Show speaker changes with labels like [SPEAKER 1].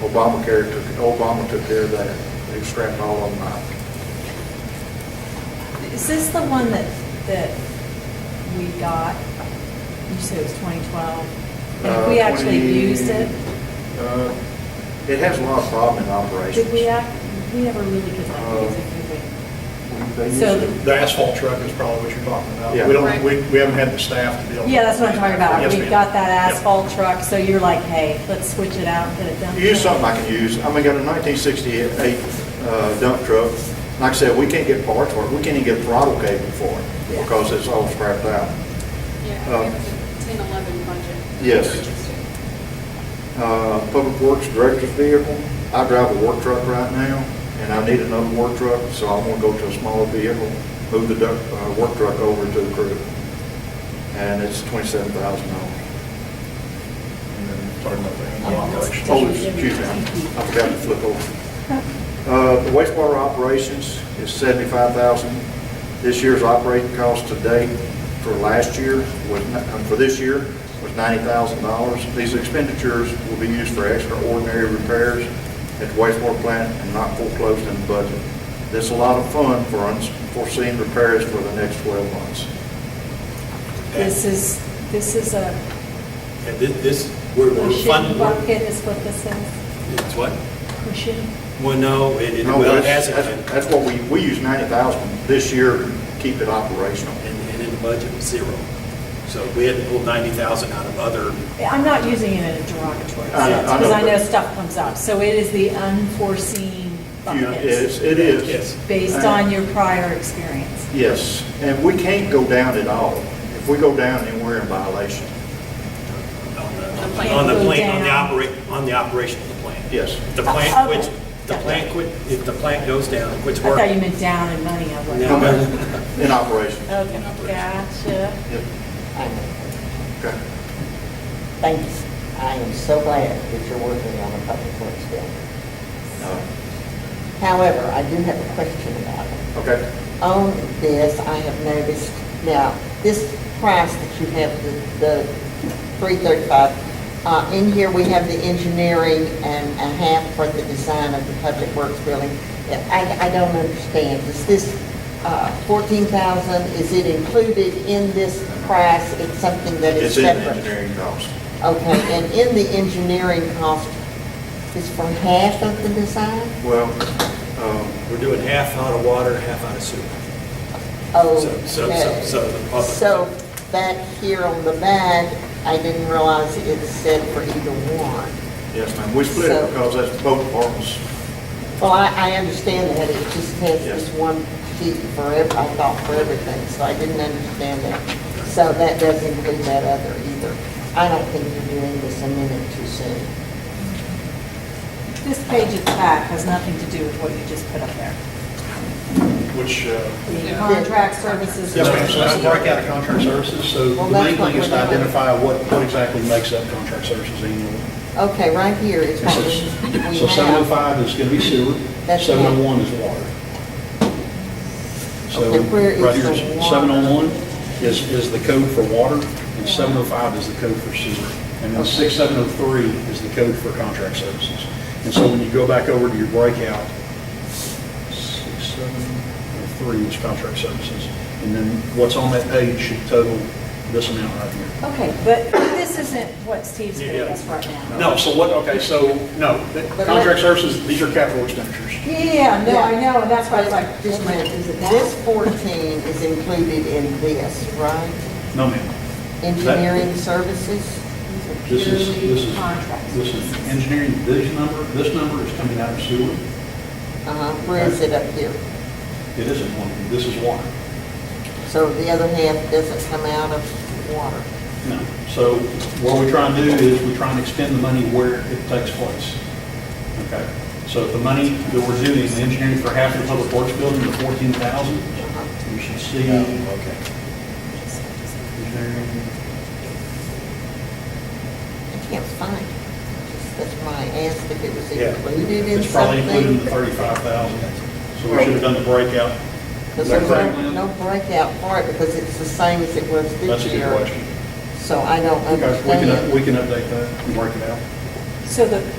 [SPEAKER 1] Obamacare took, Obama took care of that. They've strapped all of them out.
[SPEAKER 2] Is this the one that, that we got? You said it was 2012. And if we
[SPEAKER 1] Uh,
[SPEAKER 2] actually
[SPEAKER 1] 20
[SPEAKER 2] used it?
[SPEAKER 1] uh, It has a lot of problem in operations.
[SPEAKER 2] Did we act, we never really get that
[SPEAKER 1] Uh,
[SPEAKER 2] music, did we?
[SPEAKER 1] They use
[SPEAKER 2] So-
[SPEAKER 1] it.
[SPEAKER 3] The asphalt truck is probably what you're talking about.
[SPEAKER 1] Yeah.
[SPEAKER 3] We
[SPEAKER 2] Right.
[SPEAKER 3] don't, we, we haven't had the staff to deal with.
[SPEAKER 2] Yeah, that's what I'm talking about.
[SPEAKER 3] Yes,
[SPEAKER 2] We
[SPEAKER 3] ma'am.
[SPEAKER 2] got that
[SPEAKER 3] Yep.
[SPEAKER 2] asphalt truck, so you're like, hey, let's switch it out, and get it done.
[SPEAKER 1] Use something I can use. I mean, I got a 1968 uh, dump truck. Like I said, we can't get parts for it. We can't even get throttle cable for
[SPEAKER 2] Yeah.
[SPEAKER 1] it because it's all scrapped out.
[SPEAKER 4] Yeah, we have the 10, 11 budget.
[SPEAKER 1] Yes. Uh, Public Works Director's vehicle. I drive a work truck right now, and I need another work truck, so I'm gonna go to a smaller vehicle, move the duck, uh, work truck over to the crew. And it's twenty-seven thousand dollars.
[SPEAKER 3] And then Talking about the animal operation.
[SPEAKER 1] Oh, excuse me, I forgot to flip over. Uh, The wastewater operations is seventy-five thousand. This year's operating cost to date for last year was, n- uh, for this year, was ninety thousand dollars. These expenditures will be used for extraordinary repairs at the wastewater plant and not foreclosed in the budget. That's a lot of fun for unforeseen repairs for the next twelve months.
[SPEAKER 2] This is, this is a
[SPEAKER 5] And thi- this, we're we're
[SPEAKER 2] cushion
[SPEAKER 5] funding,
[SPEAKER 2] bucket is what this is,
[SPEAKER 5] it's what?
[SPEAKER 2] cushion.
[SPEAKER 5] Well, no, it, it-
[SPEAKER 1] No,
[SPEAKER 5] well, it
[SPEAKER 1] that's-
[SPEAKER 5] hasn't
[SPEAKER 1] that's-
[SPEAKER 5] been,
[SPEAKER 1] That's what we, we use ninety thousand this year to keep it operational.
[SPEAKER 5] and, and in the budget, was zero. So we had to pull ninety thousand out of other,
[SPEAKER 2] I'm not using it in a derogatory
[SPEAKER 1] I- I
[SPEAKER 2] sense,
[SPEAKER 1] know,
[SPEAKER 2] because I know
[SPEAKER 1] but-
[SPEAKER 2] stuff comes up. So it is the unforeseen
[SPEAKER 1] You-
[SPEAKER 2] bucket,
[SPEAKER 1] It's, it is.
[SPEAKER 5] Yes.
[SPEAKER 2] based on your prior experience.
[SPEAKER 1] Yes, and we can't go down at all. If we go down, then we're in violation.
[SPEAKER 5] on
[SPEAKER 4] The
[SPEAKER 5] the,
[SPEAKER 4] plant
[SPEAKER 5] on the
[SPEAKER 2] goes
[SPEAKER 5] plant, on the
[SPEAKER 2] down.
[SPEAKER 5] operate, on the operation of the plant.
[SPEAKER 1] Yes.
[SPEAKER 5] If the
[SPEAKER 2] Oh,
[SPEAKER 5] plant
[SPEAKER 2] okay.
[SPEAKER 5] quits, the plant quit, if the plant goes down, and
[SPEAKER 2] I
[SPEAKER 5] quits
[SPEAKER 2] thought you
[SPEAKER 5] working.
[SPEAKER 2] meant down in money, I was like.
[SPEAKER 5] No.
[SPEAKER 1] In operation.
[SPEAKER 2] Okay, gotcha.
[SPEAKER 1] Yep. Okay.
[SPEAKER 6] Thanks. I am so glad that you're working on a public works bill.
[SPEAKER 1] No.
[SPEAKER 6] However, I do have a question about it.
[SPEAKER 1] Okay.
[SPEAKER 6] On this, I have noticed, now, this price that you have, the, the three thirty-five, uh, in here, we have the engineering and a half for the design of the public works building. I, I don't understand. Is this, uh, fourteen thousand, is it included in this price? It's something that
[SPEAKER 1] It's
[SPEAKER 6] is
[SPEAKER 1] in
[SPEAKER 6] separate?
[SPEAKER 1] engineering cost.
[SPEAKER 6] Okay, and in the engineering cost, is for half of the design?
[SPEAKER 1] Well, um,
[SPEAKER 5] We're doing half out of water, half out of sewer.
[SPEAKER 6] Oh,
[SPEAKER 5] So- so-
[SPEAKER 6] okay.
[SPEAKER 5] so- so the public-
[SPEAKER 6] So back here on the back, I didn't realize it said for either one.
[SPEAKER 1] yes, ma'am, we split it
[SPEAKER 6] So-
[SPEAKER 1] because that's both departments.
[SPEAKER 6] Well, I, I understand that, it just has
[SPEAKER 1] Yes.
[SPEAKER 6] this one sheet for ev, I thought for everything, so I didn't understand that. So that doesn't include that other either. I don't think you're doing this a minute too soon.
[SPEAKER 2] This page at the back has nothing to do with what you just put up there.
[SPEAKER 3] Which, uh,
[SPEAKER 2] The
[SPEAKER 4] Yeah.
[SPEAKER 2] contract services.
[SPEAKER 3] Yes, ma'am, so that's break out of contract services, so the
[SPEAKER 6] Well,
[SPEAKER 3] main
[SPEAKER 6] that's what
[SPEAKER 3] thing is to
[SPEAKER 6] we're doing.
[SPEAKER 3] identify what, what exactly makes up contract services annually.
[SPEAKER 6] Okay, right here is
[SPEAKER 3] And
[SPEAKER 6] what
[SPEAKER 3] so-
[SPEAKER 6] we we have.
[SPEAKER 3] So 705 is going to be sewer,
[SPEAKER 6] That's
[SPEAKER 3] 701 is water. So,
[SPEAKER 6] Okay, where is
[SPEAKER 3] right here,
[SPEAKER 6] the water?
[SPEAKER 3] 701 is, is the code for water, and 705 is the code for sewer. And then 6703 is the code for contract services. And so when you go back over to your breakout, 6703 is contract services. And then what's on that page should total this amount right here.
[SPEAKER 2] Okay, but this isn't what Steve's giving us right now.
[SPEAKER 3] No, so what, okay, so, no, that- contract services, these are capital expenditures.
[SPEAKER 2] Yeah, Yeah, yeah, no, I know, and that's why I was like,
[SPEAKER 6] Just a minute,
[SPEAKER 2] is it
[SPEAKER 6] this
[SPEAKER 2] that?
[SPEAKER 6] 14 is included in this, right?
[SPEAKER 3] No, ma'am.
[SPEAKER 6] Engineering services?
[SPEAKER 3] This is, this
[SPEAKER 2] Purely
[SPEAKER 3] is,
[SPEAKER 2] contract
[SPEAKER 3] this is
[SPEAKER 2] services.
[SPEAKER 3] engineering, this number, this number is coming out of sewer.
[SPEAKER 6] Uh-huh, where is it up here?
[SPEAKER 3] It isn't one, this is water.
[SPEAKER 6] So the other half doesn't come out of water.
[SPEAKER 3] No. So what we try and do is we try and expend the money where it takes place. Okay? So if the money that we're doing, the engineering for half of the public works building, the 14,000,
[SPEAKER 6] Uh-huh.
[SPEAKER 3] you should see. Okay.
[SPEAKER 6] I can't find it. That's why I asked if it was
[SPEAKER 3] Yeah.
[SPEAKER 6] included in something.
[SPEAKER 3] It's probably included in the 35,000. So we should have done the breakout.
[SPEAKER 6] Because there's no-
[SPEAKER 3] Correct.
[SPEAKER 6] no breakout for it, because it's the same as it was
[SPEAKER 3] That's
[SPEAKER 6] this
[SPEAKER 3] a good
[SPEAKER 6] year.
[SPEAKER 3] question.
[SPEAKER 6] So I don't
[SPEAKER 3] Okay, We can,
[SPEAKER 6] understand.
[SPEAKER 3] we can update that and work it out.
[SPEAKER 2] So the,